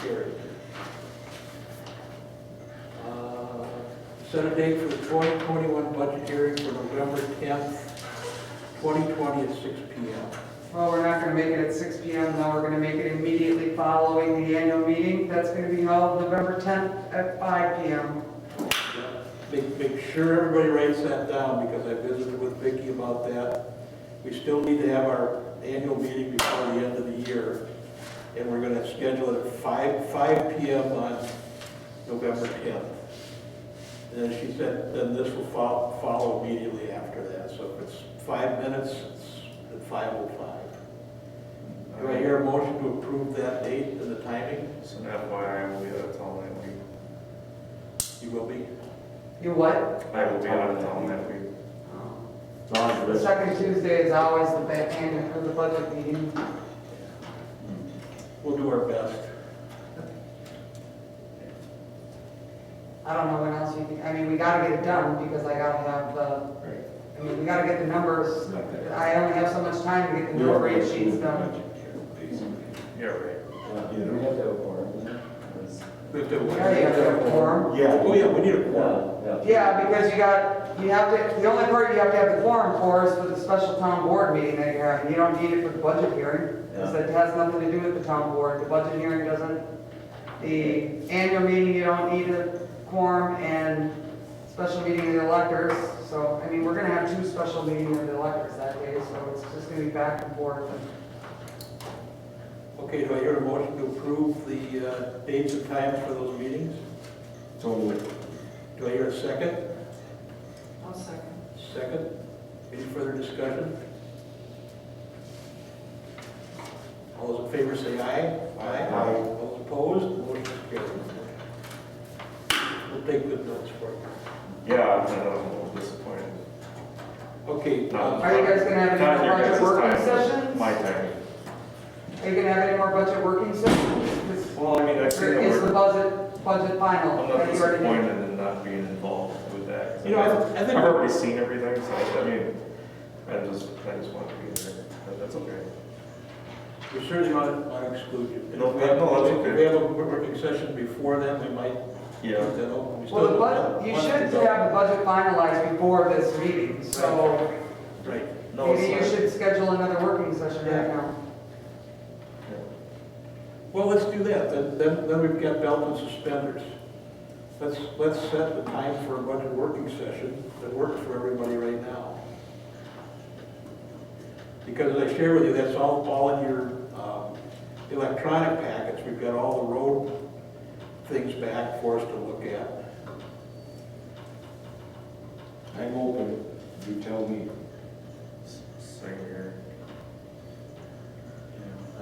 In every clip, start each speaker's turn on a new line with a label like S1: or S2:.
S1: carried. Uh, Set a date for the 2021 budget hearing for November 10th, 2020 at 6 PM.
S2: Well, we're not gonna make it at six P M, though, we're gonna make it immediately following the annual meeting, that's gonna be held November tenth at five P M.
S1: Make, make sure everybody writes that down, because I visited with Vicki about that. We still need to have our annual meeting before the end of the year, and we're gonna schedule it at five, five P M on November tenth. And then she said, then this will follow, follow immediately after that, so if it's five minutes, it's at five oh five. Do I hear a motion to approve that date and the timing?
S3: It's an FYI, I will be out of town that week.
S1: You will be?
S2: You what?
S3: I will be out of town that week.
S4: Long as
S2: The
S4: this-
S2: second Tuesday is always the back end of the budget meeting.
S1: We'll do our best.
S2: I don't know when else you can, I mean, we gotta get it done, because I gotta have the, I mean, we gotta get the numbers. I only have so much time to get the number eight sheets done.
S3: Yeah, right.
S4: Uh, you don't have to have a quorum, you know, 'cause-
S1: We have to-
S2: We already have a quorum.
S1: Oh, yeah, we need a quorum.
S4: Yeah, yeah.
S2: Yeah, because you got, you have to, the only part you have to have the quorum for is for the special town board meeting that you're having. You don't need it for the budget hearing, because
S4: Yeah.
S2: it has nothing to do with the town board. The budget hearing doesn't, the annual meeting, you don't need a quorum, and special meeting of the electors. So, I mean, we're gonna have two special meetings of the electors that day, so it's just gonna be back and forth.
S1: Okay, do I hear a motion to approve the uh, dates and times for those meetings?
S4: Totally.
S1: Do I hear a second?
S2: One second.
S1: Second? Any further discussion? All those in favor say aye.
S4: Aye.
S1: All those opposed, motion is carried. We'll take good notes for you.
S3: Yeah, I'm a little disappointed.
S1: Okay, uh,
S3: Not-
S2: Are you guys gonna have any
S3: not your
S2: budget
S3: guys'
S2: working
S3: time,
S2: sessions?
S3: My time.
S2: Are you gonna have any more budget working sessions? 'Cause
S3: Well, I mean, I see
S2: Or
S3: that
S2: is the
S3: we're,
S2: budget, budget final? that
S3: I'm not
S2: you already did?
S3: disappointed in not being involved with that. 'cause
S1: You know, I- I
S3: I've
S1: think-
S3: already seen everything, so I mean, I just, I just want to be there, but that's okay.
S1: we certainly want to- want to exclude you. And
S3: No,
S1: if we have-
S3: no, that's okay.
S1: If we have a working session before then, we might keep
S3: Yeah.
S1: that open. We still
S2: Well, the
S1: don't
S2: budget,
S1: have-
S2: you should have the budget finalized before this meeting, so
S1: Right.
S3: No,
S2: maybe you
S3: it's not.
S2: should schedule another working session right
S1: Yeah.
S2: now.
S1: Well, let's do that, then, then, then we've got belt and suspenders. Let's, let's set the time for a budget working session that works for everybody right now. Because as I share with you, that's all, all in your, um, electronic packets, we've got all the road things back for us to look at.
S5: I'm open, you tell me.
S3: Same here.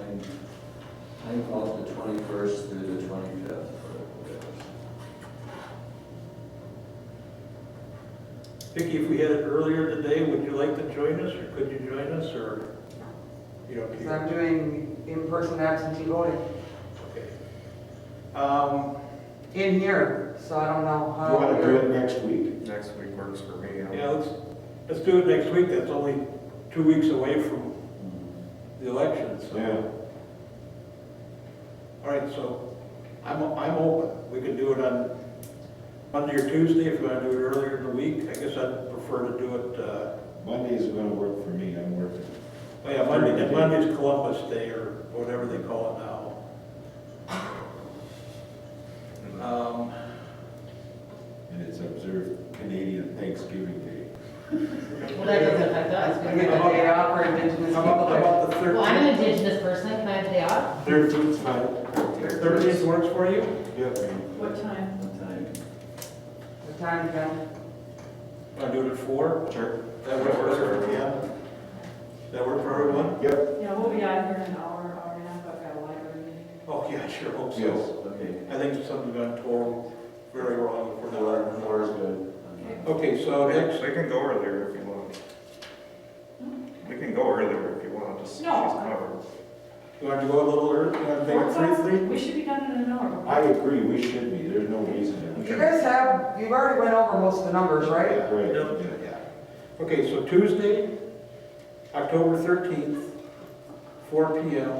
S4: I'm, I'm off the twenty-first through the twenty-fifth.
S1: Vicki, if we had it earlier today, would you like to join us, or could you join us, or, you don't
S2: Because
S1: care?
S2: I'm doing in-person absentee voting
S1: Okay. Um,
S2: in here, so I don't know
S5: You wanna do it
S2: how.
S5: next week?
S3: Next week works for me. I'm-
S1: Yeah, let's, let's do it next week, that's only two weeks away from the election, so.
S5: Yeah.
S1: All right, so I'm, I'm open, we can do it on Monday or Tuesday, if you want to do it earlier in the week, I guess I'd prefer to do it, uh,
S5: Monday's gonna work for me, I'm working.
S1: oh yeah, Monday, and Monday's Columbus Day, or whatever they call it now. Um,
S5: And it's observed Canadian Thanksgiving Day.
S6: Well, that doesn't affect us.
S2: I get the day off for indigenous
S1: How about,
S2: people.
S1: how
S2: day.
S1: about the
S6: Well, I'm an
S1: thirteenth?
S6: indigenous person, can I have the day off?
S5: Thirteenth's fine.
S1: Thirteenth works for you?
S5: Yeah, man.
S6: What time?
S4: What time?
S2: The time, then.
S1: Want to do it at four?
S3: Sure.
S1: That works for everyone, yeah? That work for everyone?
S5: Yep,
S7: Yeah, we'll be out here in an hour, hour and a half, I've got a library meeting.
S1: Oh, yeah, I sure hope
S5: yes.
S1: so.
S4: Okay.
S1: I think something got torn very wrong if we're
S4: Four,
S1: not.
S4: four is good.
S1: Okay, so next,
S3: We can go earlier if you want. We can go earlier if you want, just, she's
S7: No.
S3: covered.
S1: you want to go a little early, you want to
S7: Four
S1: make it
S7: o'clock?
S1: three, three?
S7: We should be done in an hour.
S5: I agree, we should be, there's no reason that we
S2: You
S5: should.
S2: guys have, you've already went over most of the numbers, right?
S5: Yeah, Right,
S1: No.
S5: yeah.
S1: Yeah. Okay, so Tuesday, October thirteenth, four P M.